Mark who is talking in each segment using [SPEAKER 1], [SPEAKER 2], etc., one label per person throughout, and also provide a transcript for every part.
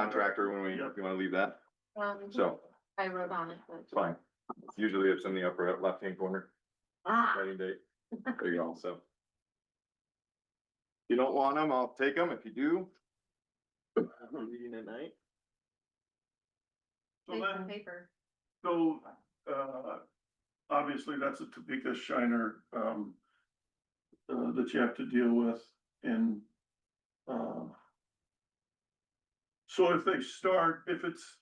[SPEAKER 1] contractor when we,
[SPEAKER 2] Yep.
[SPEAKER 1] you wanna leave that,
[SPEAKER 3] Um,
[SPEAKER 1] so,
[SPEAKER 3] I wrote on it, but.
[SPEAKER 1] it's fine. Usually it's in the upper left-hand corner,
[SPEAKER 3] Ah,
[SPEAKER 1] writing date, there you go, so. If you don't want them, I'll take them, if you do. Meeting at night.
[SPEAKER 2] So
[SPEAKER 3] paper,
[SPEAKER 2] then,
[SPEAKER 3] paper.
[SPEAKER 2] so, uh, obviously that's a Topeka Shiner, um, uh, that you have to deal with in, uh, so if they start, if it's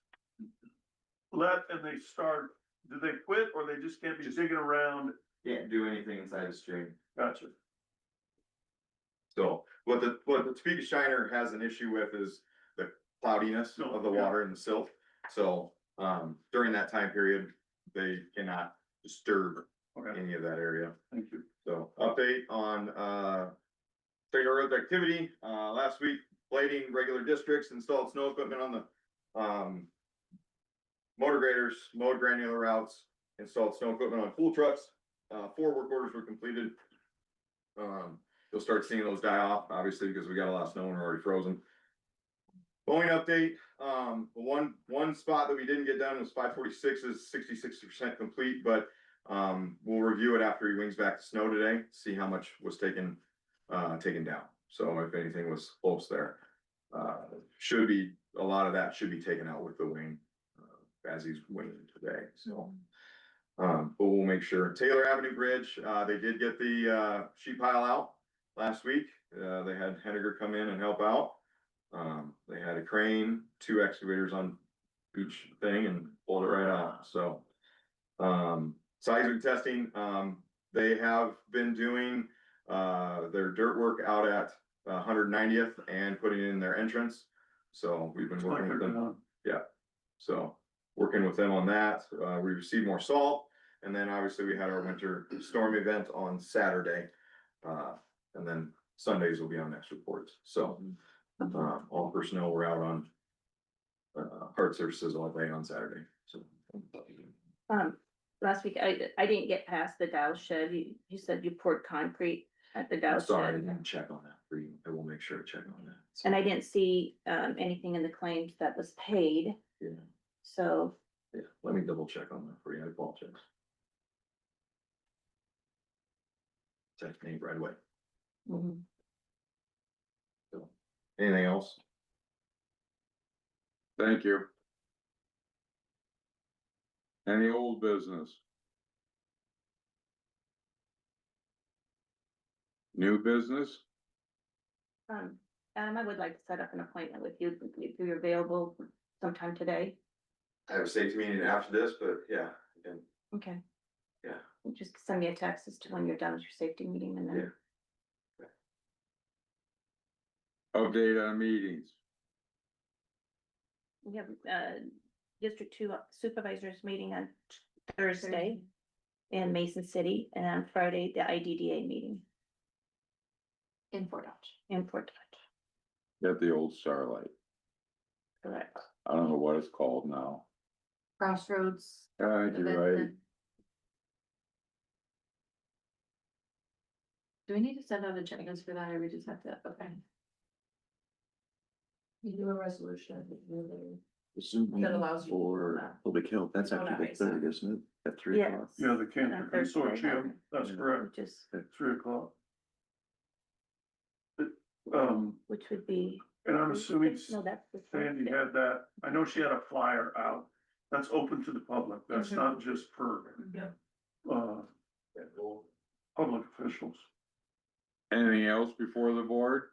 [SPEAKER 2] let and they start, do they quit or they just can't be digging around?
[SPEAKER 1] Can't do anything inside the stream.
[SPEAKER 2] Gotcha.
[SPEAKER 1] So what the, what the Topeka Shiner has an issue with is the cloudiness of the water and the silt. So, um, during that time period, they cannot disturb
[SPEAKER 2] Okay,
[SPEAKER 1] any of that area.
[SPEAKER 2] thank you.
[SPEAKER 1] So update on, uh, state roads activity, uh, last week, blading regular districts installed snow equipment on the, um, motor graders, mowed granular routes, installed snow equipment on pool trucks, uh, four work orders were completed. Um, you'll start seeing those die off, obviously, because we got a lot of snow and we're already frozen. Boeing update, um, one, one spot that we didn't get done was five forty-six is sixty-six percent complete, but um, we'll review it after he wings back the snow today, see how much was taken, uh, taken down. So if anything was close there, uh, should be, a lot of that should be taken out with the wing. uh, As he's winging today, so, um, but we'll make sure. Taylor Avenue Bridge, uh, they did get the, uh, sheet pile out last week. Uh, they had Henniger come in and help out. Um, they had a crane, two excavators on each thing and pulled it right out, so. Um, seismic testing, um, they have been doing, uh, their dirt work out at hundred ninetieth and putting in their entrance. So we've been working with them,
[SPEAKER 2] uh,
[SPEAKER 1] so working with them on that, uh, we received more salt. And then obviously we had our winter storm event on Saturday. Uh, and then Sundays will be on next reports, so,
[SPEAKER 4] Mm-hmm.
[SPEAKER 1] uh, all personnel were out on. Uh, hard services all day on Saturday, so.
[SPEAKER 4] Um, last week, I, I didn't get past the Dow shed. You, you said you poured concrete at the Dow
[SPEAKER 1] I'm sorry, I didn't
[SPEAKER 4] shed.
[SPEAKER 1] even check on that for you. I will make sure to check on that. So,
[SPEAKER 4] And I didn't see, um, anything in the claims that was paid,
[SPEAKER 1] Yeah,
[SPEAKER 4] so,
[SPEAKER 1] yeah, let me double check on that for you. I apologize. Text me right away.
[SPEAKER 4] mm,
[SPEAKER 1] Anything else?
[SPEAKER 5] Thank you. Any old business? New business?
[SPEAKER 4] um, Adam, I would like to set up an appointment with you, if you're available sometime today.
[SPEAKER 1] I have a safety meeting after this, but yeah, and
[SPEAKER 4] Okay.
[SPEAKER 1] Yeah.
[SPEAKER 4] Just send me a text as to when you're done with your safety meeting and then,
[SPEAKER 5] Update on meetings?
[SPEAKER 4] we have, uh, District Two Supervisors Meeting on Thursday in Mason City, and on Friday, the IDDA meeting
[SPEAKER 3] In Fort Dodge.
[SPEAKER 4] in Fort Dodge.
[SPEAKER 5] Got the old Starlight.
[SPEAKER 4] Correct.
[SPEAKER 5] I don't know what it's called now.
[SPEAKER 3] Crossroads.
[SPEAKER 5] God,
[SPEAKER 3] event
[SPEAKER 5] you're right.
[SPEAKER 3] then. Do we need to send out agendas for that, or we just have to, okay?
[SPEAKER 6] You do a resolution, really.
[SPEAKER 1] Zoom
[SPEAKER 6] That allows you to do for that.
[SPEAKER 1] public health, that's
[SPEAKER 6] Don't after the that make third,
[SPEAKER 1] isn't it? At
[SPEAKER 4] three Yes. o'clock?
[SPEAKER 2] Yeah, the Cancer
[SPEAKER 4] On Thursday,
[SPEAKER 2] Consortium, that's
[SPEAKER 1] Yeah.
[SPEAKER 2] correct,
[SPEAKER 4] Which is,
[SPEAKER 2] three o'clock. Um,
[SPEAKER 4] which would be.
[SPEAKER 2] and I'm assuming
[SPEAKER 4] No, that's the
[SPEAKER 2] Sandy
[SPEAKER 4] Thursday.
[SPEAKER 2] had that, I know she had a flyer out, that's open to the public, that's
[SPEAKER 3] Mhm.
[SPEAKER 2] not just for,
[SPEAKER 6] Yep.
[SPEAKER 2] uh, public officials.
[SPEAKER 5] Anything else before the board?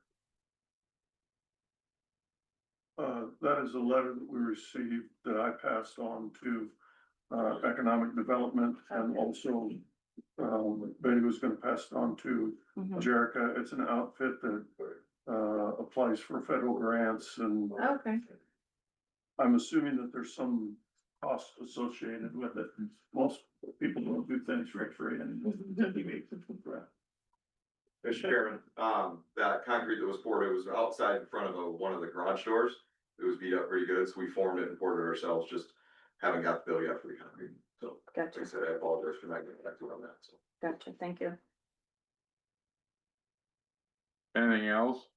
[SPEAKER 2] Uh, that is a letter that we received that I passed on to, uh, economic development and
[SPEAKER 4] Okay.
[SPEAKER 2] also, um, Betty was gonna pass it on to
[SPEAKER 4] Mhm.
[SPEAKER 2] Jerica, it's an outfit that, uh, applies for federal grants and uh,
[SPEAKER 3] Okay.
[SPEAKER 2] I'm assuming that there's some cost associated with it. Most people don't do things for free and.
[SPEAKER 1] Mr. Chairman, um, that concrete that was poured, it was outside in front of a, one of the garage doors. It was beat up pretty good, so we formed it and poured it ourselves, just haven't got the bill yet for the concrete. So, like I
[SPEAKER 4] Gotcha,
[SPEAKER 1] said, I apologize for not getting back to you on that, so.
[SPEAKER 4] gotcha, thank you.
[SPEAKER 5] Anything else?